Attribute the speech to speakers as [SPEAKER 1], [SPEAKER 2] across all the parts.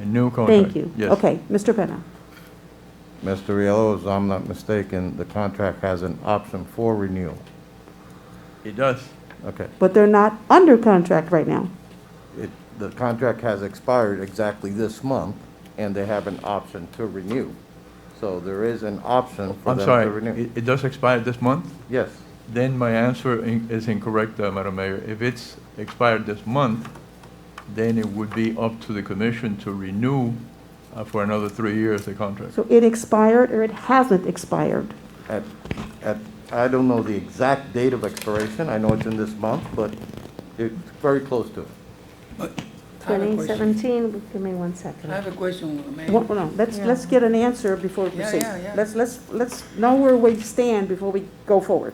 [SPEAKER 1] A new contract?
[SPEAKER 2] Thank you.
[SPEAKER 1] Oh, Yes.
[SPEAKER 2] Okay, Mr. Penna.
[SPEAKER 3] Mr. Riello, as I'm not mistaken, the contract has an option for renewal.
[SPEAKER 1] It does.
[SPEAKER 3] Okay.
[SPEAKER 2] But they're not under contract right now.
[SPEAKER 3] It- The contract has expired exactly this month, and they have an option to renew. So there is an option for
[SPEAKER 1] I'm
[SPEAKER 3] them to
[SPEAKER 1] sorry,
[SPEAKER 3] renew.
[SPEAKER 1] it, it does expire this month?
[SPEAKER 3] Yes,
[SPEAKER 1] Then my answer in- is incorrect, uh, Madam Mayor. If it's expired this month, then it would be up to the commission to renew uh, for another three years the contract.
[SPEAKER 2] So it expired or it hasn't expired.
[SPEAKER 3] at, at, I don't know the exact date of expiration. I know it's in this month, but it's very close to it.
[SPEAKER 4] I have a question.
[SPEAKER 5] 2017, give me one
[SPEAKER 4] I
[SPEAKER 5] second.
[SPEAKER 4] have a question, Mayor.
[SPEAKER 2] Well, no, let's, let's get an answer before we
[SPEAKER 4] Yeah,
[SPEAKER 2] proceed.
[SPEAKER 4] yeah, yeah.
[SPEAKER 2] Let's, let's, let's know where we stand before we go forward.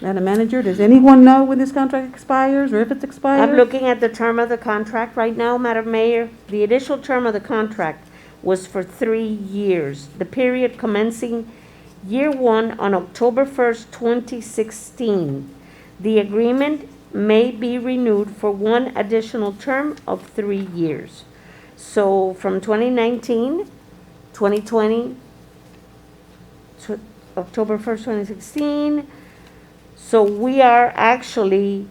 [SPEAKER 2] Madam Manager, does anyone know when this contract expires or if it's expired?
[SPEAKER 5] I'm looking at the term of the contract right now, Madam Mayor. The initial term of the contract was for three years. The period commencing year one on October 1st, 2016. The agreement may be renewed for one additional term of three years. So from 2019, 2020, tw- October 1st, 2016, So we are actually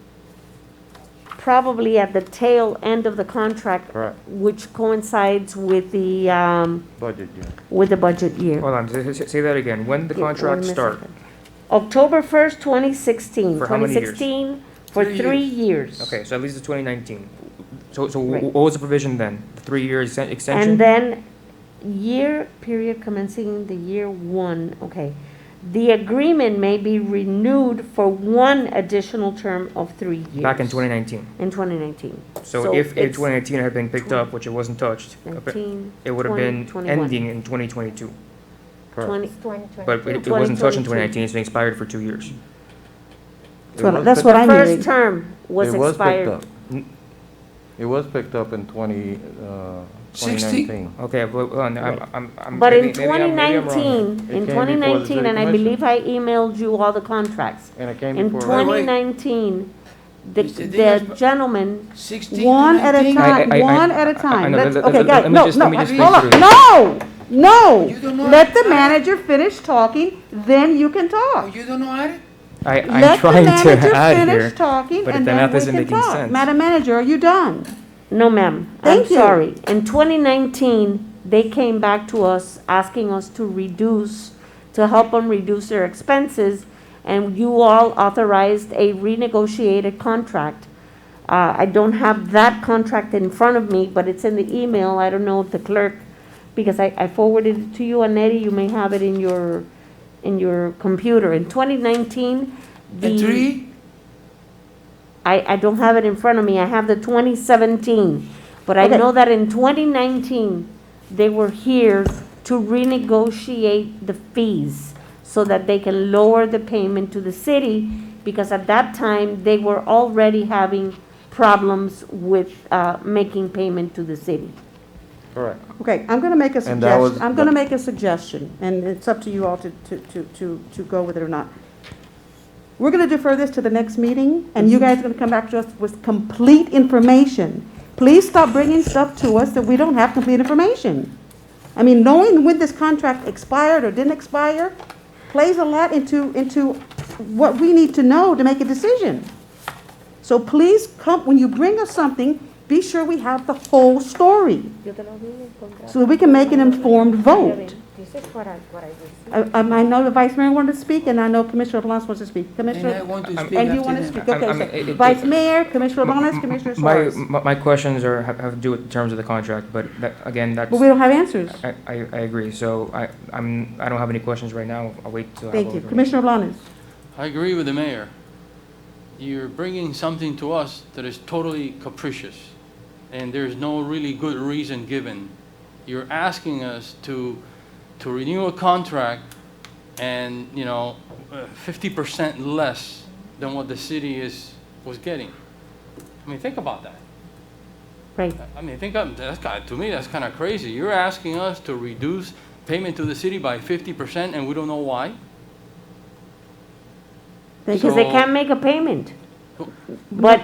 [SPEAKER 5] probably at the tail end of the contract.
[SPEAKER 3] Correct.
[SPEAKER 5] Which coincides with the, um,
[SPEAKER 3] Budget year.
[SPEAKER 5] with the budget year.
[SPEAKER 6] Hold on, say- say say that again. When the contract start?
[SPEAKER 5] October first, twenty sixteen.
[SPEAKER 6] For how many years?
[SPEAKER 5] 2016, for
[SPEAKER 4] Three
[SPEAKER 5] three years.
[SPEAKER 6] Okay, so at least it's 2019. So, so
[SPEAKER 5] Right.
[SPEAKER 6] wh- what was the provision then? The three-year exten- extension?
[SPEAKER 5] And then year, period commencing the year one, okay. The agreement may be renewed for one additional term of three years.
[SPEAKER 6] Back in 2019.
[SPEAKER 5] In twenty nineteen.
[SPEAKER 6] So if in
[SPEAKER 5] it's
[SPEAKER 6] 2019 it had been picked up, which it wasn't touched, appa-
[SPEAKER 5] 19,
[SPEAKER 6] it would have
[SPEAKER 5] 20,
[SPEAKER 6] been
[SPEAKER 5] 21.
[SPEAKER 6] ending in 2022.
[SPEAKER 3] Correct.
[SPEAKER 5] 20
[SPEAKER 6] But it it wasn't touched
[SPEAKER 5] 2022.
[SPEAKER 6] in 2019, it's been expired for two years.
[SPEAKER 3] It
[SPEAKER 2] Well,
[SPEAKER 3] was
[SPEAKER 2] that's
[SPEAKER 3] picked-
[SPEAKER 2] what
[SPEAKER 5] The
[SPEAKER 2] I'm
[SPEAKER 5] first
[SPEAKER 2] hearing.
[SPEAKER 5] term was
[SPEAKER 3] It was picked
[SPEAKER 5] expired.
[SPEAKER 3] up. It was picked up in 20, uh,
[SPEAKER 4] Sixty-
[SPEAKER 3] 2019.
[SPEAKER 6] Okay, but, hold on, I'm, I'm- I'm.
[SPEAKER 5] But in
[SPEAKER 6] maybe- maybe I'm- maybe I'm wrong.
[SPEAKER 5] 2019,
[SPEAKER 3] It came before
[SPEAKER 5] in
[SPEAKER 3] the
[SPEAKER 5] 2019,
[SPEAKER 3] city
[SPEAKER 5] and I
[SPEAKER 3] commission.
[SPEAKER 5] believe I emailed you all the contracts.
[SPEAKER 3] And it came
[SPEAKER 5] In
[SPEAKER 3] before.
[SPEAKER 4] twen- Wait, wait.
[SPEAKER 5] 2019, the
[SPEAKER 4] You said they
[SPEAKER 5] the
[SPEAKER 4] was-
[SPEAKER 5] gentleman,
[SPEAKER 4] Sixteen to
[SPEAKER 2] One at a
[SPEAKER 4] nineteen?
[SPEAKER 6] I-
[SPEAKER 2] time,
[SPEAKER 6] I- I-
[SPEAKER 2] one at
[SPEAKER 6] I- I
[SPEAKER 2] a time.
[SPEAKER 6] know,
[SPEAKER 2] Let's-
[SPEAKER 6] let-
[SPEAKER 2] Okay,
[SPEAKER 6] let-
[SPEAKER 2] guys,
[SPEAKER 6] let me
[SPEAKER 2] no,
[SPEAKER 6] just-
[SPEAKER 2] no,
[SPEAKER 6] let me just think
[SPEAKER 2] hold on,
[SPEAKER 6] through
[SPEAKER 2] no, no.
[SPEAKER 4] You don't know
[SPEAKER 2] Let
[SPEAKER 4] how
[SPEAKER 2] the
[SPEAKER 4] to-
[SPEAKER 2] manager finish talking, then you can
[SPEAKER 4] Oh,
[SPEAKER 2] talk.
[SPEAKER 4] you don't know how to?
[SPEAKER 6] I,
[SPEAKER 2] Let
[SPEAKER 6] I'm
[SPEAKER 2] the
[SPEAKER 6] trying to
[SPEAKER 2] manager
[SPEAKER 6] add here.
[SPEAKER 2] finish talking
[SPEAKER 6] but
[SPEAKER 2] and
[SPEAKER 6] the
[SPEAKER 2] then
[SPEAKER 6] math
[SPEAKER 2] we
[SPEAKER 6] isn't
[SPEAKER 2] can
[SPEAKER 6] making
[SPEAKER 2] talk.
[SPEAKER 6] sense.
[SPEAKER 2] Madam Manager, are you done?
[SPEAKER 5] no ma'am, I'm
[SPEAKER 2] Thank you.
[SPEAKER 5] sorry. In 2019, they came back to us asking us to reduce, to help them reduce their expenses, and you all authorized a renegotiated contract. Uh, I don't have that contract in front of me, but it's in the email. I don't know if the clerk, because I, I forwarded it to you, Annette, you may have it in your, in your computer. In 2019, the.
[SPEAKER 4] The three?
[SPEAKER 5] I, I don't have it in front of me, I have the twenty seventeen, but I
[SPEAKER 2] Okay.
[SPEAKER 5] know that in twenty nineteen, they were here to renegotiate the fees so that they can lower the payment to the city, because at that time, they were already having problems with, uh, making payment to the city.
[SPEAKER 3] Correct.
[SPEAKER 2] Okay, I'm gonna make a
[SPEAKER 3] And that was
[SPEAKER 2] suggestion, I'm gonna
[SPEAKER 3] the-
[SPEAKER 2] make a suggestion, and it's up to you all to, to, to, to, to go with it or not. We're gonna defer this to the next meeting, and
[SPEAKER 3] Mm-hmm.
[SPEAKER 2] you guys are gonna come back to us with complete information. Please stop bringing stuff to us that we don't have complete information. I mean, knowing when this contract expired or didn't expire plays a lot into, into what we need to know to make a decision. So please come, when you bring us something, be sure we have the whole story so that we can make an informed vote. I, I'm- I know the Vice Mayor wanted to speak, and I know Commissioner Blanes wants to speak.
[SPEAKER 4] And I
[SPEAKER 2] Commissioner,
[SPEAKER 4] want to
[SPEAKER 6] I'm-
[SPEAKER 4] speak
[SPEAKER 2] and you want
[SPEAKER 4] after
[SPEAKER 2] to
[SPEAKER 4] them.
[SPEAKER 2] speak,
[SPEAKER 6] I'm- I'm-
[SPEAKER 2] okay,
[SPEAKER 6] it-
[SPEAKER 2] so
[SPEAKER 6] it-
[SPEAKER 2] Vice Mayor, Commissioner Blanes,
[SPEAKER 6] M-
[SPEAKER 2] Commissioner
[SPEAKER 6] m- my-
[SPEAKER 2] Suarez.
[SPEAKER 6] m- My questions are, have have to do with the terms of the contract, but that, again, that's.
[SPEAKER 2] But we don't have answers.
[SPEAKER 6] I, I, I agree, so I, I'm, I don't have any questions right now, I'll wait till. I have
[SPEAKER 2] Thank
[SPEAKER 6] all
[SPEAKER 2] you.
[SPEAKER 6] the
[SPEAKER 2] Commissioner Blanes.
[SPEAKER 7] I agree with the mayor. You're bringing something to us that is totally capricious, and there's no really good reason given. You're asking us to, to renew a contract and, you know, fifty percent less than what the city is, was getting. I mean, think about that.
[SPEAKER 5] Right,
[SPEAKER 7] I mean, think of, that's kind, to me, that's kind of crazy. You're asking us to reduce payment to the city by fifty percent, and we don't know why?
[SPEAKER 2] Thank you.
[SPEAKER 5] because they
[SPEAKER 7] So-
[SPEAKER 5] can't make a payment. But